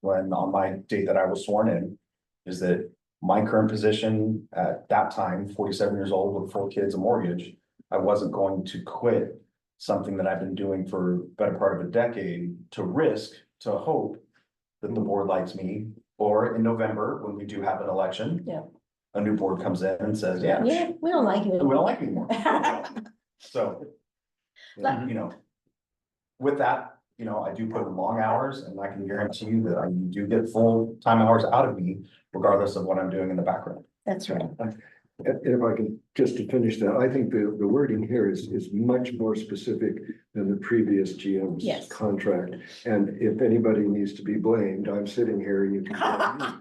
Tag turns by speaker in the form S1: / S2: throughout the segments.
S1: when on my date that I was sworn in, is that my current position at that time, forty-seven years old with four kids, a mortgage, I wasn't going to quit something that I've been doing for better part of a decade to risk, to hope that the board likes me, or in November, when we do have an election.
S2: Yeah.
S1: A new board comes in and says, yeah, we
S2: Yeah, we don't like it.
S1: don't like you anymore. So.
S2: But-
S1: You know. With that, you know, I do put in long hours and I can guarantee you that I do get full time hours out of me regardless of what I'm doing in the background.
S2: That's right.
S3: And and if I can, just to finish that, I think the, the wording here is, is much more specific than the previous GM's
S2: Yes.
S3: contract. And if anybody needs to be blamed, I'm sitting here and you can blame me.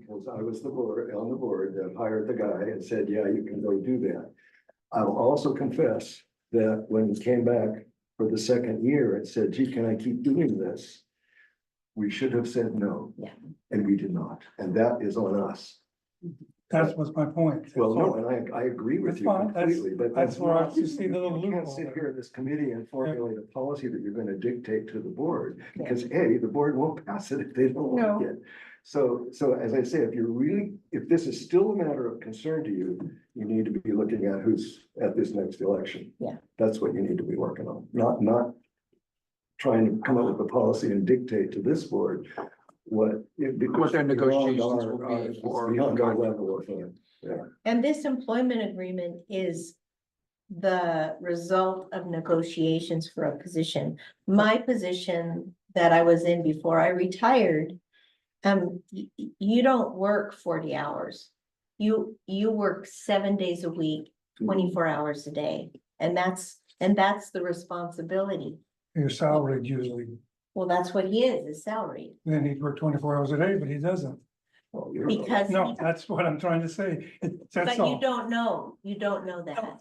S3: Because I was the board, on the board that hired the guy and said, yeah, you can go do that. I'll also confess that when we came back for the second year, it said, gee, can I keep doing this? We should have said no.
S2: Yeah.
S3: And we did not. And that is on us.
S4: That was my point.
S3: Well, no,
S4: So-
S3: and I, I agree with
S4: That's
S3: you
S4: fine. That's-
S3: completely, but.
S4: that's where I just see the little
S3: You can't
S4: loophole
S3: sit
S4: there.
S3: here in this committee and formulate a policy that you're gonna dictate to the board,
S2: Yeah.
S3: because A, the board won't pass it if they don't
S2: No.
S3: like it. So, so as I say, if you're really, if this is still a matter of concern to you, you need to be looking at who's at this next election.
S2: Yeah.
S3: That's what you need to be working on, not, not trying to come up with a policy and dictate to this board what.
S5: What their negotiations will be for-
S3: uh, Beyond our level of. uh,
S2: And this employment agreement is the result of negotiations for a position. My position that I was in before I retired, um, y- y- you don't work forty hours. You, you work seven days a week, twenty-four hours a day, and that's, and that's the responsibility.
S4: You're salaried usually,
S2: Well, that's what he is, is salaried,
S4: then he'd work twenty-four hours a day, but he doesn't.
S3: well, Oh, you're-
S2: because,
S4: No,
S2: but
S4: that's what I'm trying to say. It- That's
S2: you
S4: all.
S2: don't know, you don't know that.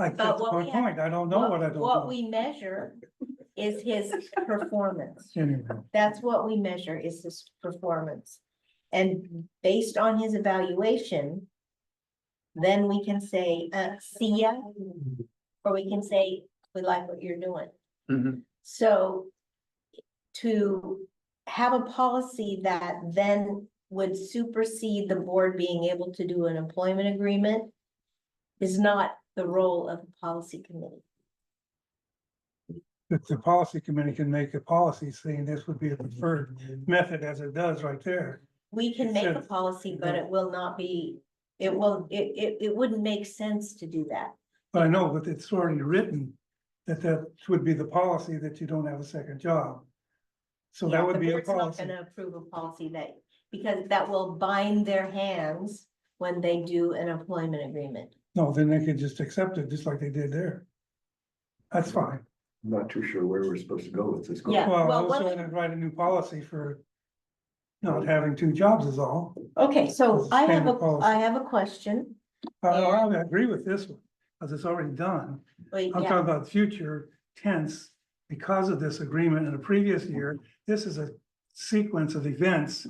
S4: I, that's
S2: what
S4: my
S2: we have-
S4: point. I don't know what I don't
S2: What
S4: know.
S2: we measure is his performance.
S4: Anyway,
S2: That's what we measure is his performance. And based on his evaluation, then we can say, uh, see ya, or we can say, we like what you're doing.
S5: Mhm.
S2: So to have a policy that then would supersede the board being able to do an employment agreement is not the role of the policy committee.
S4: if the policy committee can make a policy saying this would be a preferred method as it does right there.
S2: We can make a
S4: Sure.
S2: policy, but it will not be, it will, it, it, it wouldn't make sense to do that.
S4: But I know, but it's already written that that would be the policy that you don't have a second job. So
S2: Yeah,
S4: that
S2: the
S4: would be a
S2: board's not
S4: policy.
S2: Gonna approve a policy that, because that will bind their hands when they do an employment agreement.
S4: No, then they could just accept it, just like they did there. That's fine.
S3: I'm not too sure where we're supposed to go with this.
S2: Yeah,
S4: Well, I
S2: well,
S4: was
S2: what-
S4: gonna write a new policy for not having two jobs is all.
S2: Okay, so
S4: It's a
S2: I have
S4: standard
S2: a,
S4: policy.
S2: I have a question.
S4: I, I agree with this one, because it's already done.
S2: Wait,
S4: I'm
S2: yeah,
S4: talking about future tense, because of this agreement in a previous year, this is a sequence of events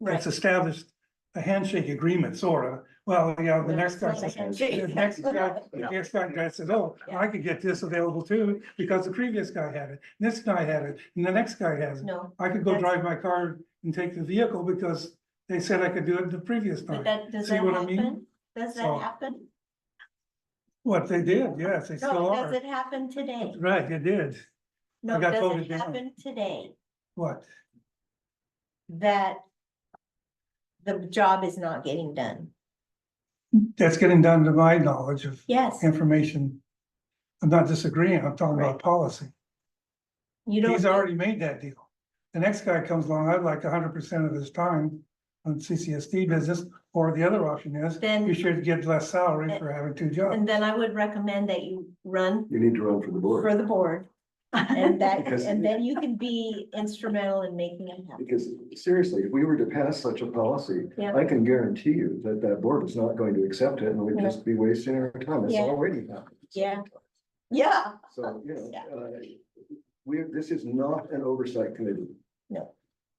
S2: right.
S4: that's established a handshake agreement, sort of. Well, yeah, the
S2: Well,
S4: next
S2: it's
S4: guy
S2: like a
S4: says,
S2: handshake.
S4: the next guy, the
S2: Yeah.
S4: next guy guy says, oh,
S2: Yeah.
S4: I could get this available too, because the previous guy had it, this guy had it, and the next guy has it.
S2: No,
S4: I could go
S2: That's-
S4: drive my car and take the vehicle because they said I could do it the previous
S2: but
S4: time.
S2: that, does
S4: See
S2: that
S4: what I mean?
S2: happen? Does that
S4: So-
S2: happen?
S4: What they did, yes, they still
S2: No, does
S4: are.
S2: it happen today?
S4: Right, they did.
S2: No,
S4: got
S2: does
S4: voted
S2: it
S4: down.
S2: happen today
S4: What?
S2: that the job is not getting done?
S4: That's getting down to my knowledge of
S2: Yes,
S4: information. I'm not disagreeing, I'm talking about
S2: Right.
S4: policy.
S2: you don't.
S4: He's already made that deal. The next guy comes along, I'd like hundred percent of his time on CCSD business, or the other option is,
S2: Then-
S4: you should get less salary for having two jobs.
S2: And then I would recommend that you run
S3: You need to run for the
S2: for
S3: board,
S2: the board. And that,
S3: Because-
S2: and then you can be instrumental in making it happen.
S3: because seriously, if we were to pass such a policy,
S2: Yeah.
S3: I can guarantee you that that board is not going to accept it and we'd just be wasting our time. It's
S2: Yeah.
S3: already happened.
S2: Yeah. Yeah.
S3: So, you know,
S2: Yeah.
S3: uh, we, this is not an oversight committee.
S2: No.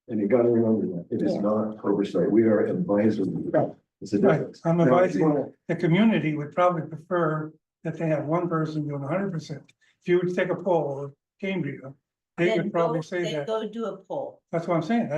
S3: And you gotta remember that. It is
S2: Yeah.
S3: not oversight. We are advisory.
S2: Right.
S3: It's a
S4: Right,
S3: difference.
S4: I'm
S3: Now, if you
S4: advising
S3: wanna-
S4: the community would probably prefer that they have one person doing hundred percent. If you would take a poll of Cambria, they
S2: Then
S4: would probably
S2: go-
S4: say
S2: then
S4: that.
S2: Go do a poll.
S4: That's what I'm saying. That's